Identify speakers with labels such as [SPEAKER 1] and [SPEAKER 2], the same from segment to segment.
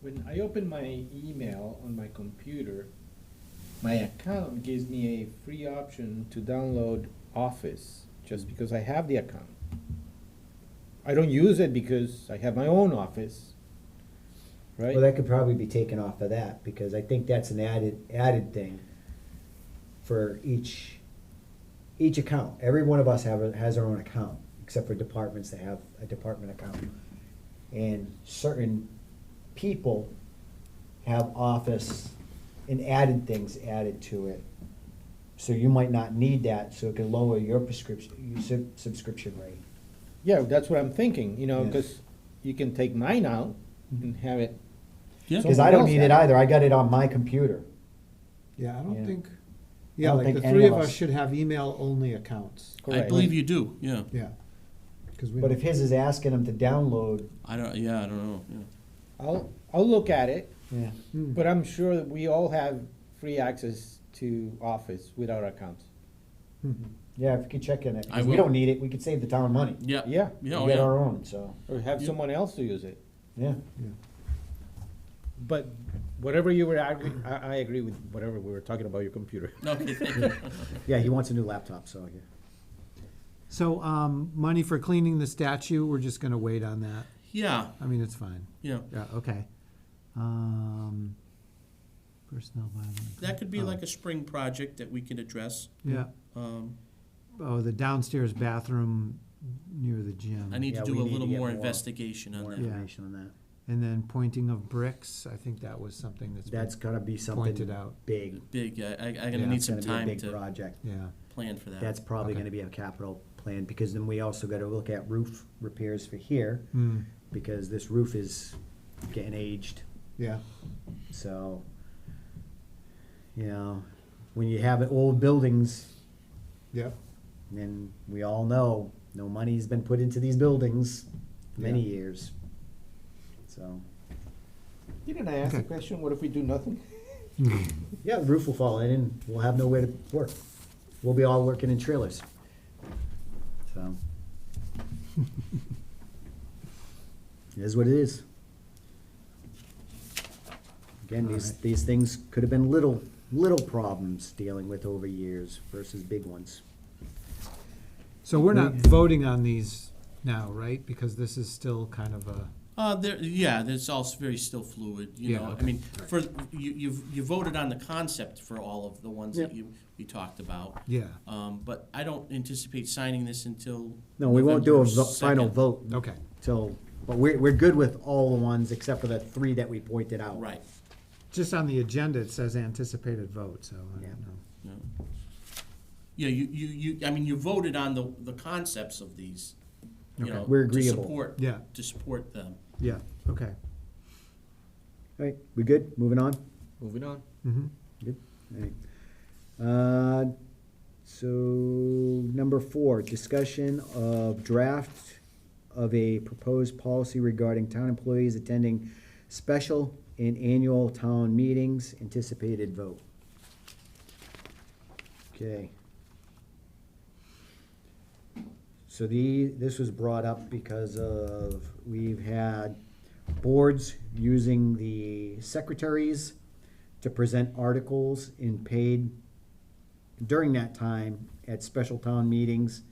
[SPEAKER 1] when I open my email on my computer, my account gives me a free option to download Office, just because I have the account. I don't use it because I have my own office,
[SPEAKER 2] Well,
[SPEAKER 1] right?
[SPEAKER 2] that could probably be taken off of that, because I think that's an added, added thing for each, each account. Every one of us have, a- has our own account, except for departments that have a department account. And certain people have office and added things added to it. So you might not need that, so it could lower your prescription, your sub- subscription rate.
[SPEAKER 1] Yeah, that's what I'm thinking, you know,
[SPEAKER 2] Yeah.
[SPEAKER 1] because you can take mine out and have it.
[SPEAKER 3] Yeah.
[SPEAKER 2] Cause Mm-hmm. I don't
[SPEAKER 1] Someone else
[SPEAKER 2] need
[SPEAKER 1] had
[SPEAKER 2] it
[SPEAKER 1] it.
[SPEAKER 2] either, I got it on my computer.
[SPEAKER 4] Yeah, I
[SPEAKER 2] Yeah.
[SPEAKER 4] don't think, yeah,
[SPEAKER 2] don't
[SPEAKER 4] like
[SPEAKER 2] think
[SPEAKER 4] the
[SPEAKER 2] any
[SPEAKER 4] three
[SPEAKER 2] of
[SPEAKER 4] of us
[SPEAKER 2] us-
[SPEAKER 4] should have email-only accounts,
[SPEAKER 3] I
[SPEAKER 1] Correct.
[SPEAKER 3] believe you do, yeah.
[SPEAKER 4] yeah. 'Cause we
[SPEAKER 2] But
[SPEAKER 4] don't-
[SPEAKER 2] if his is asking him to download,
[SPEAKER 3] I don't, yeah, I don't know, yeah.
[SPEAKER 1] I'll, I'll look at it,
[SPEAKER 2] yeah.
[SPEAKER 4] Hmm.
[SPEAKER 1] but I'm sure that we all have free access to Office with our accounts.
[SPEAKER 4] Mhm.
[SPEAKER 2] Yeah, if we could check in it, 'cause
[SPEAKER 3] I
[SPEAKER 2] we
[SPEAKER 3] will.
[SPEAKER 2] don't need it, we could save the town money.
[SPEAKER 3] Yeah.
[SPEAKER 1] Yeah,
[SPEAKER 2] We
[SPEAKER 3] Yeah, oh,
[SPEAKER 2] get
[SPEAKER 3] yeah.
[SPEAKER 2] our own, so,
[SPEAKER 1] or have
[SPEAKER 3] You-
[SPEAKER 1] someone else to use it.
[SPEAKER 2] yeah.
[SPEAKER 1] But whatever you were, arguing, I, I agree with whatever we were talking about your computer.
[SPEAKER 3] No, Okay, thank you.
[SPEAKER 2] Yeah, he wants a new laptop, so, yeah.
[SPEAKER 4] So, um, money for cleaning the statue, we're just gonna wait on that,
[SPEAKER 3] Yeah,
[SPEAKER 4] I mean, it's fine,
[SPEAKER 3] yeah.
[SPEAKER 4] yeah, okay. Um, personnel bylaw.
[SPEAKER 3] That could be
[SPEAKER 2] Uh-huh.
[SPEAKER 3] like a spring project that we can address.
[SPEAKER 4] Yeah,
[SPEAKER 3] Um,
[SPEAKER 4] oh, the downstairs bathroom near the gym.
[SPEAKER 3] I need to
[SPEAKER 2] Mm-hmm. Yeah,
[SPEAKER 3] do
[SPEAKER 2] we
[SPEAKER 3] a
[SPEAKER 2] need
[SPEAKER 3] little
[SPEAKER 2] to get
[SPEAKER 3] more
[SPEAKER 2] more-
[SPEAKER 3] investigation on
[SPEAKER 2] More
[SPEAKER 3] that.
[SPEAKER 4] Yeah.
[SPEAKER 2] information on that.
[SPEAKER 4] And then pointing of bricks, I think that was something that's. been-
[SPEAKER 2] That's gotta be
[SPEAKER 4] Pointed
[SPEAKER 2] something
[SPEAKER 4] out.
[SPEAKER 2] big.
[SPEAKER 3] Big, I, I- I'm
[SPEAKER 2] Yeah,
[SPEAKER 3] gonna need
[SPEAKER 2] it's
[SPEAKER 3] some
[SPEAKER 2] gonna be a
[SPEAKER 3] time
[SPEAKER 2] Big
[SPEAKER 3] to
[SPEAKER 2] project.
[SPEAKER 4] Yeah,
[SPEAKER 3] plan for that.
[SPEAKER 2] That's probably
[SPEAKER 4] Okay.
[SPEAKER 2] gonna be a capital plan, because then we also gotta look at roof repairs for here,
[SPEAKER 4] hmm,
[SPEAKER 2] because this roof is getting aged.
[SPEAKER 4] yeah,
[SPEAKER 2] So, you know, when you have old buildings,
[SPEAKER 4] yeah,
[SPEAKER 2] and we all know no money's been put into these buildings many
[SPEAKER 4] Yeah.
[SPEAKER 2] years. So,
[SPEAKER 1] Didn't I ask the
[SPEAKER 4] Okay.
[SPEAKER 1] question, what if we do nothing?
[SPEAKER 2] yeah, the roof will fall in and we'll have nowhere to work. We'll be all working in trailers. So, it is what it is. Again, these,
[SPEAKER 4] Alright.
[SPEAKER 2] these things could have been little, little problems dealing with over years versus big ones.
[SPEAKER 4] so we're not voting on these now, right, because this is still kind of a.
[SPEAKER 3] Uh, there, yeah, there's also very still fluid, you
[SPEAKER 4] Yeah,
[SPEAKER 3] know, I
[SPEAKER 4] okay.
[SPEAKER 3] mean, for, you, you've, you voted on the concept for all of the ones that
[SPEAKER 2] Yep.
[SPEAKER 3] you, we talked about.
[SPEAKER 4] Yeah,
[SPEAKER 3] Um, but I don't anticipate signing this until.
[SPEAKER 2] No, we won't do a
[SPEAKER 3] November
[SPEAKER 2] vo- final
[SPEAKER 3] 2nd.
[SPEAKER 2] vote
[SPEAKER 4] okay,
[SPEAKER 2] So, but we're, we're good with all the ones except for the three that we pointed out.
[SPEAKER 3] Right,
[SPEAKER 4] just on the agenda, it says anticipated vote, so I
[SPEAKER 2] Yeah.
[SPEAKER 4] don't know.
[SPEAKER 3] yeah. Yeah, you, you, you, I mean, you voted on the, the concepts of these, you
[SPEAKER 4] Okay.
[SPEAKER 3] know.
[SPEAKER 2] We're
[SPEAKER 3] to
[SPEAKER 2] agreeable.
[SPEAKER 3] support-
[SPEAKER 4] Yeah.
[SPEAKER 3] To support them.
[SPEAKER 4] Yeah, okay.
[SPEAKER 2] All right, we good? Moving on?
[SPEAKER 1] Moving on.
[SPEAKER 4] Mm-hmm.
[SPEAKER 2] Good. All right. Uh, So, number four, discussion of draft of a proposed policy regarding town employees attending special and annual town meetings, anticipated vote. Okay. So the, this was brought up because of, we've had boards using the secretaries to present articles in paid during that time at special town meetings,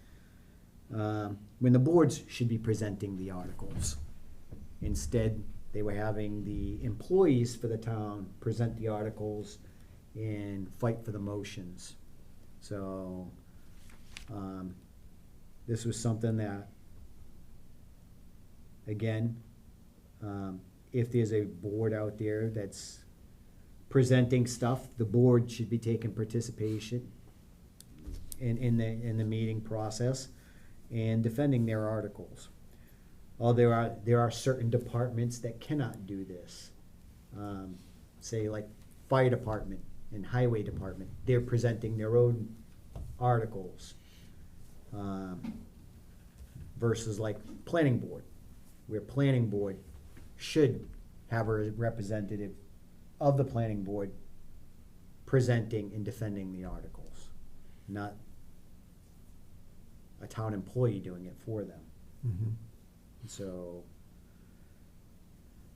[SPEAKER 2] um, when the boards should be presenting the articles. Instead, they were having the employees for the town present the articles and fight for the motions. So, um, this was something that, again, um, if there's a board out there that's presenting stuff, the board should be taking participation in, in the, in the meeting process and defending their articles. Oh, there are, there are certain departments that cannot do this. Um, Say like fire department and highway department, they're presenting their own articles. um, Versus like planning board, where planning board should have a representative of the planning board presenting and defending the articles, not a town employee doing it for them.
[SPEAKER 4] Mm-hmm.
[SPEAKER 2] So